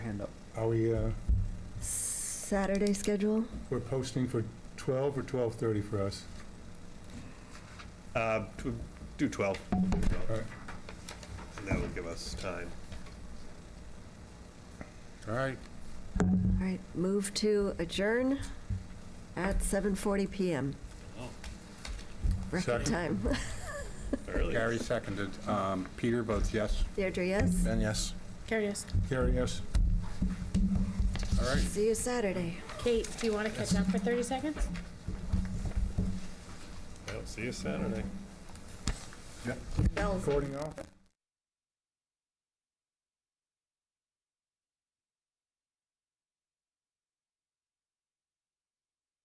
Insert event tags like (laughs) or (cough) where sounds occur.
up. Are we, uh, Saturday schedule? we're posting for 12 or 12:30 for us? Uh, tw- Do 12. All right. And that will give us time. All right. All right, move to adjourn at 7:40 PM. Record Second. time. (laughs) Early. Gary seconded. Um, Peter votes yes. Deirdre, yes? Ben, yes. Curious. Gary, yes? All right. See you Saturday. Kate, do you want to catch up for 30 seconds? Well, See you Saturday. Bells. Recording off?